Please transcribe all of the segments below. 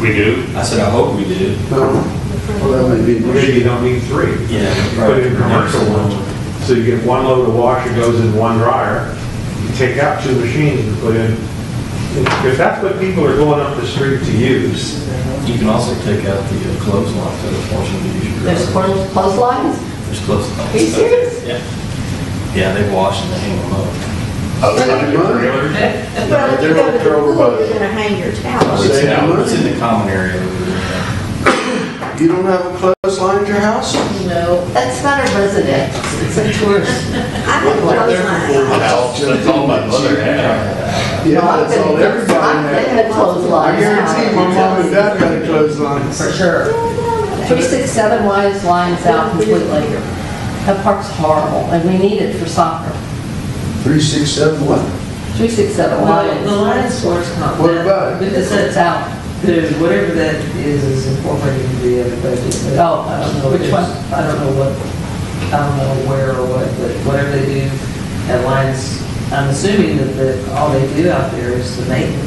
We do? I said, I hope we do. Well, that may be. Maybe you don't need three. Yeah. Put it in commercial one. So you get one load of washer goes in one dryer. You take out two machines and put in, because that's what people are going up the street to use. You can also take out the uh, clothesline to the portion that you should. There's clo- clotheslines? There's clothesline. Are you serious? Yeah. Yeah, they wash and they hang them up. Well, if you go to the pool, you're gonna hang your towel. It's Save out- money. It's in the common area over there. You don't have a clothesline at your house? No, that's not a resident, it's a tourist. I have clothesline. That's all Oh, my Oh, mother had. Yeah, that's all, everybody I've been has. to clotheslines. I guarantee my mom and dad had a clothesline. For sure. Three, six, seven wise lines out completely. That park's horrible, and we need it for soccer. Three, six, seven, what? Three, six, seven Well, the lines. Lions floor's not. What about it? Because Because it's that's, out. the- whatever that is, is incorporated into the other budget. but Oh, I don't know which if- one? I don't know what, I don't know where or what, but whatever they do at Lions, I'm assuming that, that all they do out there is the maintenance.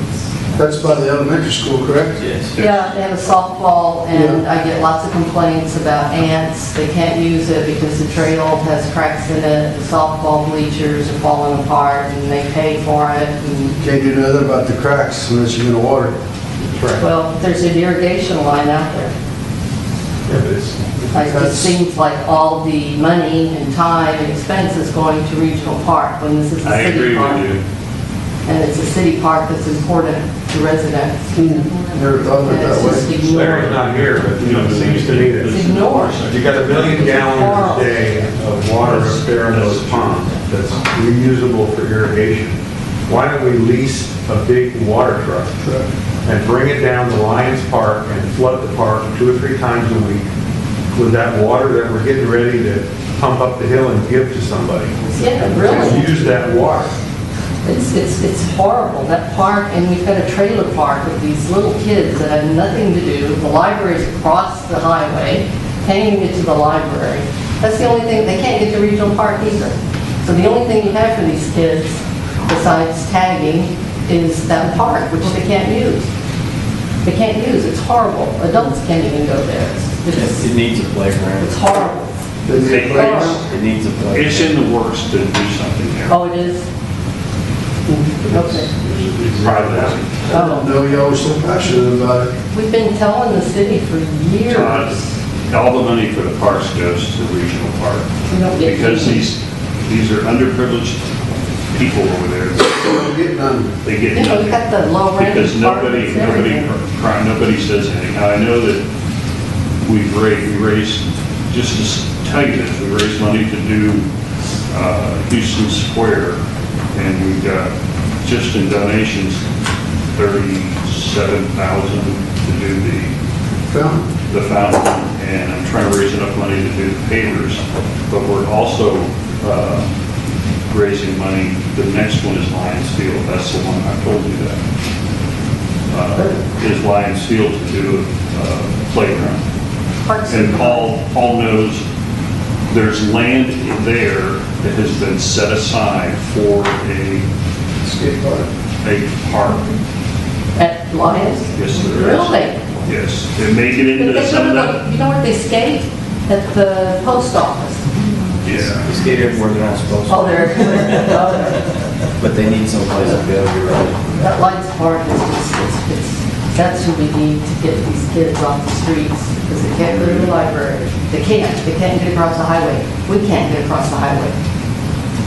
That's by the elementary school, correct? Yes. Yeah, they have a softball, and I get lots of complaints about ants. They can't use it because the trail has cracks in it, the softball bleachers are falling apart, and they pay for it. and- Can't do nothing about the cracks unless you're gonna water. it. Well, there's an irrigation line out there. Yeah, but it's- Like, It That's- just seems like all the money and time and expense is going to regional park when this is a I city agree park. with you. And it's a city park that's important to residents. Never thought of And Hmm. it it's that just way. Larry's ignored. not here, but you know, it seems to me It's that ignored. you got a million gallons a day of water up there in those ponds that's reusable for irrigation. Why don't we lease a big water truck and bring it down to Lions Park and flood the park two or three times a week with that water that we're getting ready to pump up the hill and give to somebody? Yeah, really. Use that water. It's, it's, it's horrible, that park, and we've got a trailer park with these little kids that have nothing to do. The library's across the highway, paying it to the library. That's the only thing, they can't get to regional park either. So the only thing you have for these kids, besides tagging, is that park, which they can't use. They can't use, it's horrible. Adults can't even go there. It's, Yes, It it's- needs a it's playground. horrible. They need a place. Horrible. It needs a playground. It's in the works to do something there. Oh, it is? Okay. It's private. Oh. No, y'all were so passionate about it. We've been telling the city for Todd, years. All the money for the parks goes to the regional park. we don't get Because any. these, these are underprivileged people over there. They don't get none. They get You know, we've nothing. got the low rent. Because nobody, apartments, nobody, everything. cri- nobody says anything. Now, I know that we've raised, we raised, just to s- tell you this, we raised money to do uh, Houston Square, and we got, just in donations, thirty-seven thousand to do the, Found. the fountain, and I'm trying to raise enough money to do the pavers, but we're also uh, raising money, the next one is Lions Field, that's the one, I told you that uh, is Lions Field to do a playground. Parks And Paul, Paul knows there's land in there that has been set aside for a, Skate park. a park. At Lions? Yes, there is. Really? Yes, it may get into But they some of go to that. the- You know where they skate? At the post office. Yeah. They skate everywhere they're not supposed Oh, to, there. oh, but they need someplace to go, you're right. That Lions Park is just, it's, it's, that's who we need to get these kids off the streets because they can't go to the library. They can't, they can't get across the highway. We can't get across the highway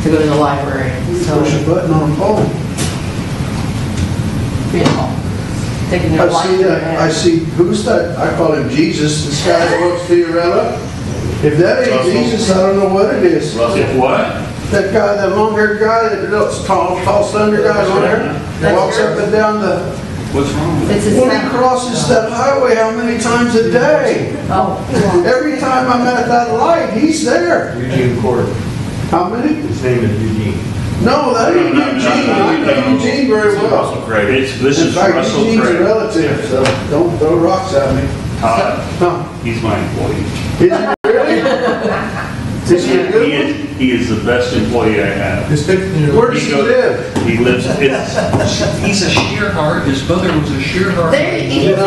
to go to the library. So, Push a button on a pole. you know, taking their I life. see in their that, I hands. see, who's that? I call him Jesus, this guy that works for Fiorella. If that ain't Russell. Jesus, I don't know what it is. Russell, If what? That guy, that long-haired guy, that looks tall, tall, slender guy on there, walks up and down the, What's wrong with it? It's a when he sound. crosses that highway, how many times a day? Oh, Every time I'm at that light, he's there. Eugene Court, How many? his name is Eugene. No, that ain't Eugene, I know Eugene very well. Russell Craig. It's, this In is fact, Russell Eugene's a Craig. relative, so don't throw rocks at me. Todd, Huh? he's my employee. Is he really? Is he a He good one? is, he is the best employee I have. Just pick, you know, Where does he live? He lives, it's, He's a sheer heart, his mother was a sheer heart. There, you go.